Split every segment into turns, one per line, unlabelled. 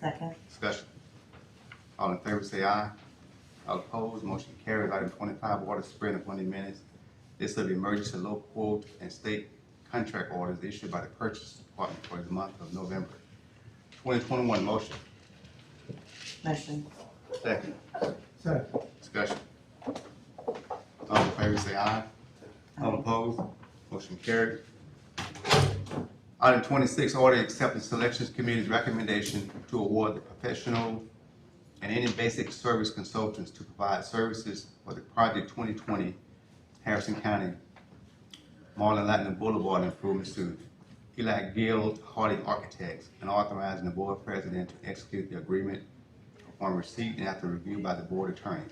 Second.
Discussion. All in favor say aye. All opposed, motion carries. Item twenty-five, order spread of twenty minutes. This of emergency low quote and state contract orders issued by the Purchase Department for the month of November. Twenty twenty-one, motion.
Motion.
Second.
Second.
Discussion. All in favor say aye. All opposed, motion carried. Item twenty-six, order accepting selections committee's recommendation to award the professional and any basic service consultants to provide services for the project twenty twenty Harrison County Marlin Latin Boulevard improvements to Eli Gill Harding Architects and authorizing the board president to execute the agreement upon receipt and after review by the board attorney.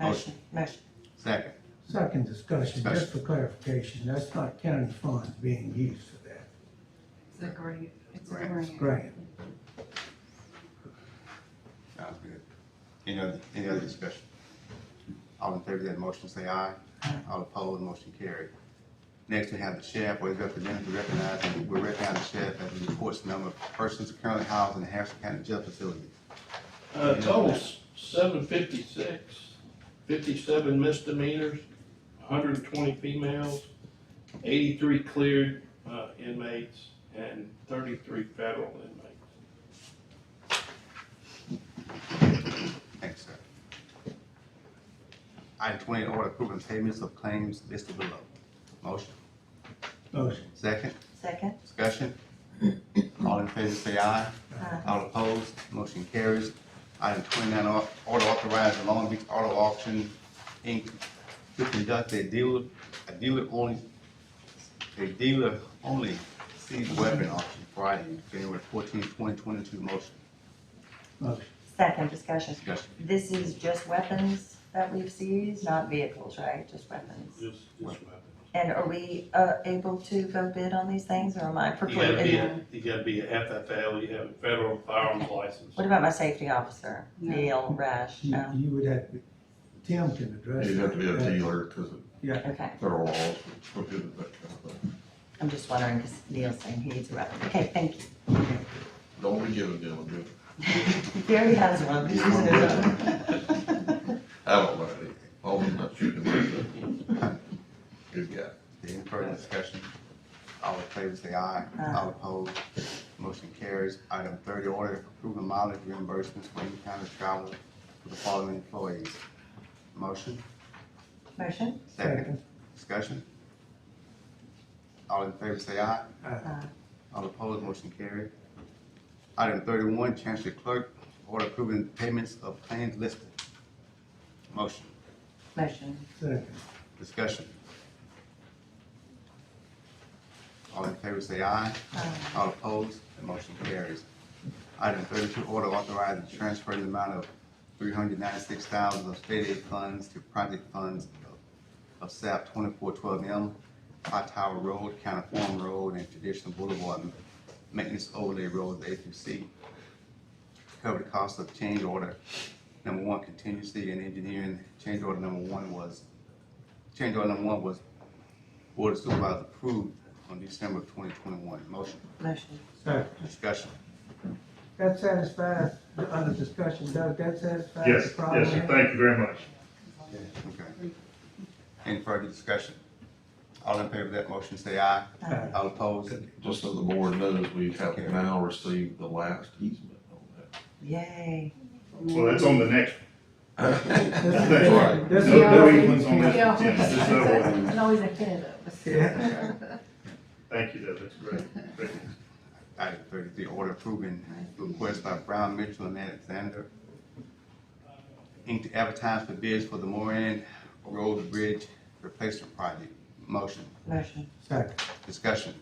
Motion. Motion.
Second,
Second discussion, just for
Discussion.
clarification, that's not county funds being used for that,
It's a grant, it's a
Grant.
grant.
grant.
sounds good. Any other, any other discussion? All in favor of that motion, say aye. All opposed, motion carried. Next, we have the sheriff, or his representative recognizing, we recognize the sheriff as he reports the number of persons currently housed in the Harrison County Jail Facility.
Uh, total seven fifty-six, fifty-seven misdemeanors, hundred and twenty females, eighty-three cleared, uh, inmates, and thirty-three federal inmates.
Thanks, sir. Item twenty, order approving payments of claims listed below. Motion,
Motion,
second,
Second.
discussion. All in favor, say aye.
Aye.
All opposed, motion carries. Item twenty-nine, au- order authorizing Long Beach Auto Auction, Inc. to conduct a dealer, a dealer only, a dealer only seized weapon auction Friday, January fourteenth, twenty twenty-two. Motion,
motion,
Second discussion.
discussion.
This is just weapons that we've seized, not vehicles, right? Just weapons.
Just, just weapons.
And are we, uh, able to go bid on these things or am I
You gotta be,
precluded?
a- you gotta be a FFL, you have a federal firearms license.
What about my safety officer,
No.
Neil Rash?
you,
No.
you would have, to- Tim can address.
You'd have to be a
that.
dealer, because
Yeah,
Okay,
federal laws would prohibit that kind of thing.
I'm just wondering, because Neil's saying he needs a weapon. Okay, thank you.
Don't be giving them a good,
He already has one. He's using it up.
I don't like it, all of them not shooting like that. Good guy.
Any further discussion? All in favor, say aye.
Aye.
All opposed, motion carries. Item thirty, order approving mileage reimbursements for in-county travel for the following employees. Motion,
Motion.
second.
second,
Discussion? All in favor say aye.
Aye.
Uh,
All opposed, motion carried. Item thirty-one, Chancery Clerk, order approving payments of claims listed. Motion,
Motion.
second,
discussion. All in favor say aye.
Uh,
All opposed, the motion carries. Item thirty-two, order authorizing transfer in the amount of three hundred ninety-six thousand of state aid funds to project funds of- of SAP twenty-four twelve M, High Tower Road, County Farm Road, and Traditional Boulevard Maintenance Overlay Road, A through C. Cover the cost of change order number one contingency and engineering. Change order number one was, change order number one was Board of Supervisors approved on December twenty twenty-one. Motion.
Motion.
second.
Discussion.
That satisfies, the other discussion, Doug, that satisfies
Yes,
the problem?
yes, sir, thank you very much.
Okay. Any further discussion? All in favor of that motion, say aye.
Uh,
All opposed?
Just so the board knows, we have now received the last easement on
Yay.
Well, that's on the next.
that.
This is-
That's
right.
this is-
No, no easements on this
Yeah.
agenda, just that one.
It's always ahead of us.
Yeah.
Thank you, Deb, that's great. Great.
Item thirty-three, order approving request by Brown Mitchell and Alexander Inc. to advertise for bids for the Moran Road Bridge Replacement Project. Motion.
Motion.
Second,
Discussion.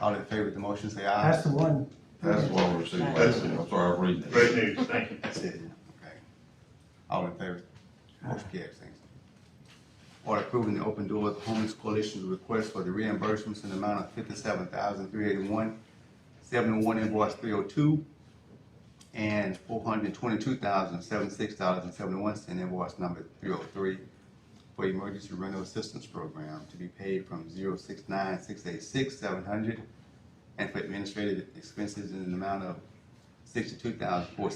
All in favor of the motion, say
that's
aye.
the one,
That's why we received last, easement. I'm sorry, I'm reading it.
Great news, thank you.
That's it. Okay. All in favor? Motion carries, thanks. Order approving the Open Doors Homeless Coalition's request for the reimbursements in the amount of fifty-seven thousand three eighty-one, seventy-one invoice three oh two, and four hundred twenty-two thousand seventy-six dollars and seventy-one cent invoice number three oh three for emergency rental assistance program to be paid from zero six nine six eight six seven hundred, and for administrative expenses in an amount of six to two thousand four